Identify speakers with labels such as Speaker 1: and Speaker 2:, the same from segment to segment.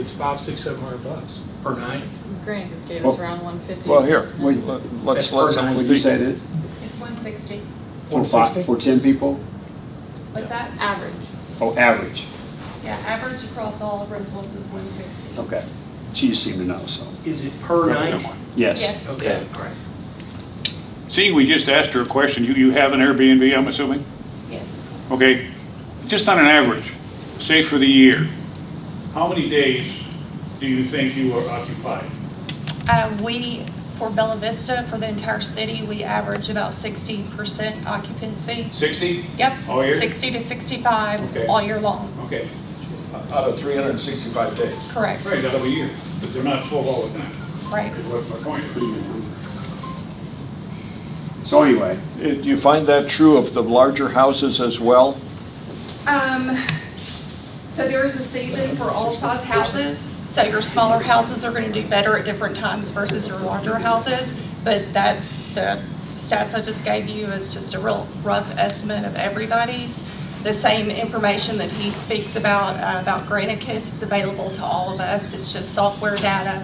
Speaker 1: it's five, six, seven hundred bucks per night.
Speaker 2: Grant just gave
Speaker 3: Well-
Speaker 2: us around one fifty.
Speaker 3: Well, here, we, let's,
Speaker 1: That's per
Speaker 3: let's.
Speaker 1: night.
Speaker 3: we
Speaker 4: What'd you say that,
Speaker 5: It's one sixty.
Speaker 4: for five,
Speaker 1: 160?
Speaker 4: for ten people?
Speaker 5: What's that?
Speaker 2: Average.
Speaker 4: Oh, average,
Speaker 5: Yeah, average across all rentals is one sixty.
Speaker 4: okay. She just seemed to know, so,
Speaker 1: Is it per night?
Speaker 4: yes.
Speaker 3: Oh.
Speaker 5: Yes.
Speaker 1: Okay, all right.
Speaker 3: Seeing we just asked her a question, you, you have an Airbnb, I'm assuming?
Speaker 5: Yes.
Speaker 3: Okay, just on an average, say for the year, how many days do you think you are occupied?
Speaker 5: Uh, We, for Bella Vista, for the entire city, we average about sixty percent occupancy.
Speaker 3: 60?
Speaker 5: Yep.
Speaker 3: All year?
Speaker 5: Sixty to
Speaker 3: Okay.
Speaker 5: sixty-five all year long,
Speaker 3: Okay.
Speaker 6: out of 365 days.
Speaker 5: correct,
Speaker 3: Right, that'll be a year, but they're not full all the time.
Speaker 5: right.
Speaker 3: What's my point?
Speaker 4: So anyway,
Speaker 7: Uh, Do you find that true of the larger houses as well?
Speaker 5: Um, so there is a season for all size houses. So your smaller houses are gonna do better at different times versus your larger houses. But that, the stats I just gave you is just a real rough estimate of everybody's. The same information that he speaks about, uh, about Granicus is available to all of us. It's just software data.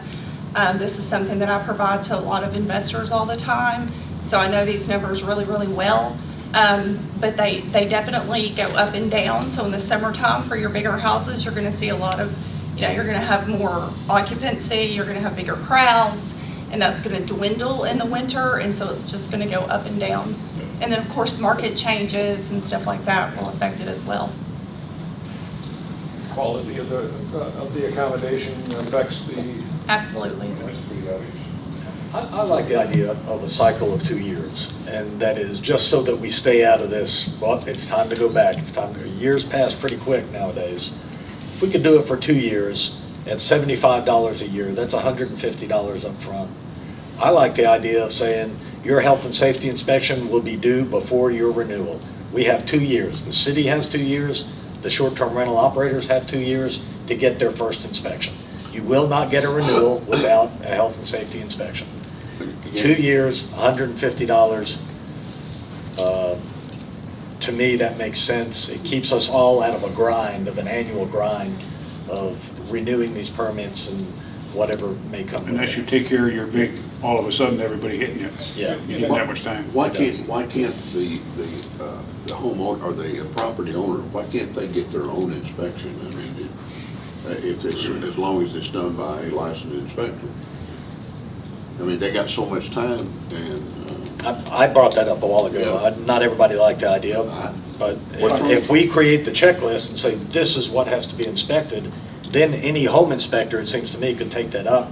Speaker 5: Um, this is something that I provide to a lot of investors all the time. So I know these numbers really, really well. Um, But they, they definitely go up and down. So in the summertime, for your bigger houses, you're going to see a lot of, you know, you're going to have more occupancy, you're going to have bigger crowds, and that's going to dwindle in the winter, and so it's just going to go up and down. And then, of course, market changes and stuff like that will affect it as well.
Speaker 6: Quality of the, uh, of the accommodation affects the.
Speaker 5: Absolutely.
Speaker 8: I, I like the idea of a cycle of two years, and that is just so that we stay out of this, well, it's time to go back, it's time, to years pass pretty quick nowadays. If we could do it for two years at seventy-five dollars a year, that's hundred and fifty dollars up front. I like the idea of saying, your health and safety inspection will be due before your renewal. We have two years, the city has two years, the short-term rental operators have two years to get their first inspection. You will not get a renewal without a health and safety inspection. Two years, $150. Uh, To me, that makes sense. It keeps us all out of a grind, of an annual grind of renewing these permits and whatever may come with
Speaker 3: Unless you
Speaker 8: it.
Speaker 3: take care of your big, all of a sudden, everybody hitting you.
Speaker 8: Yeah.
Speaker 3: You didn't have much time.
Speaker 9: Why can't, why can't the, the, uh, the homeowner, or the property owner, why can't they get their own inspection? I mean, it- uh, if it's, as long as it's done by a licensed inspector. I mean, they got so much time and, uh,
Speaker 8: I I brought that up a while ago.
Speaker 9: Yeah. Uh-huh.
Speaker 8: I- Not everybody liked the idea,
Speaker 9: I-
Speaker 8: but
Speaker 9: What's
Speaker 8: if
Speaker 9: wrong?
Speaker 8: if we create the checklist and say, this is what has to be inspected, then any home inspector, it seems to me, could take that up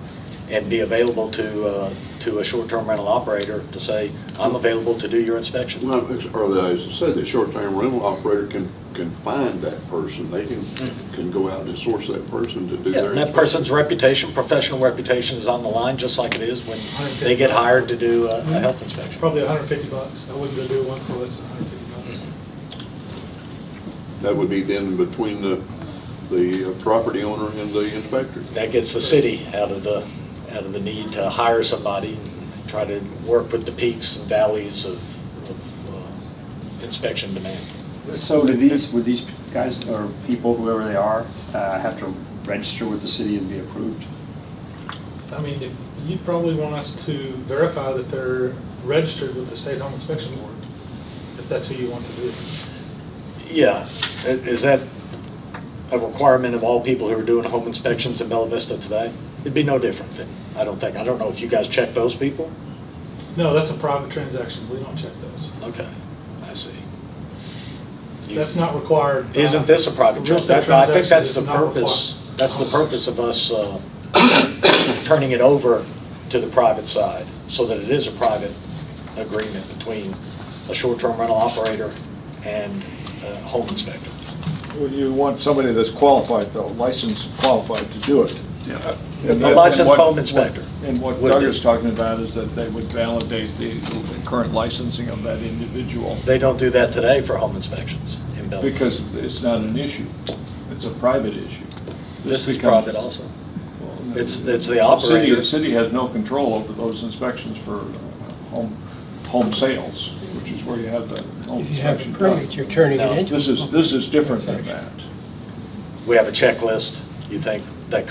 Speaker 8: and be available to, uh, to a short-term rental operator to say, I'm available to do your
Speaker 9: uh,
Speaker 8: inspection.
Speaker 9: well, it's- or the, as I said, the short-term rental operator can, can find that person. They can, can go out and source that person to do
Speaker 8: Yeah,
Speaker 9: their.
Speaker 8: and that
Speaker 9: inspection.
Speaker 8: person's reputation, professional reputation is on the line, just like it is when they get hired to do a, a health inspection.
Speaker 1: Probably hundred and fifty bucks. I wouldn't go do one for less than hundred and fifty bucks.
Speaker 9: That would be then between the, the uh, property owner and the inspector.
Speaker 8: That gets the city out of the, out of the need to hire somebody, and try to work with the peaks and valleys of, of uh, inspection demand.
Speaker 4: so do these, would these guys, or people, whoever they are, uh, have to register with the city and be approved?
Speaker 1: I mean, if- you'd probably want us to verify that they're registered with the State Home Inspection Board, if that's who you want to do it.
Speaker 8: Yeah, i- is that a requirement of all people who are doing home inspections in Bella Vista today? It'd be no different then, I don't think. I don't know if you guys check those people?
Speaker 1: No, that's a private transaction. We don't check those.
Speaker 8: Okay, I see. You-
Speaker 1: That's not required. by-
Speaker 8: Isn't this a private
Speaker 1: Real estate
Speaker 8: transaction? I think that's
Speaker 1: transactions
Speaker 8: the
Speaker 1: is not
Speaker 8: purpose,
Speaker 1: required.
Speaker 8: that's the purpose of us uh, turning it over to the private side, so that it is a private agreement between a short-term rental operator and a home inspector.
Speaker 7: Well, you want somebody that's qualified, though, licensed, qualified to do it.
Speaker 3: Yeah.
Speaker 7: And- and
Speaker 8: A licensed
Speaker 7: what-
Speaker 8: home inspector.
Speaker 7: And what
Speaker 8: would
Speaker 7: Doug
Speaker 8: be.
Speaker 7: is talking about is that they would validate the current licensing of that individual,
Speaker 8: They don't do that today for home inspections in Belleville.
Speaker 7: because it's not an issue. It's a private issue.
Speaker 8: This is
Speaker 7: becomes-
Speaker 8: private also.
Speaker 7: Well,
Speaker 8: It's- it's the
Speaker 7: city-
Speaker 8: operator.
Speaker 7: The city has no control over those inspections for uh, home, home sales, which is where you have the home
Speaker 10: If you have a
Speaker 7: inspection.
Speaker 10: permit, you're turning it
Speaker 8: No,
Speaker 10: into.
Speaker 7: This is, this is different than that.
Speaker 8: We have a checklist, you think,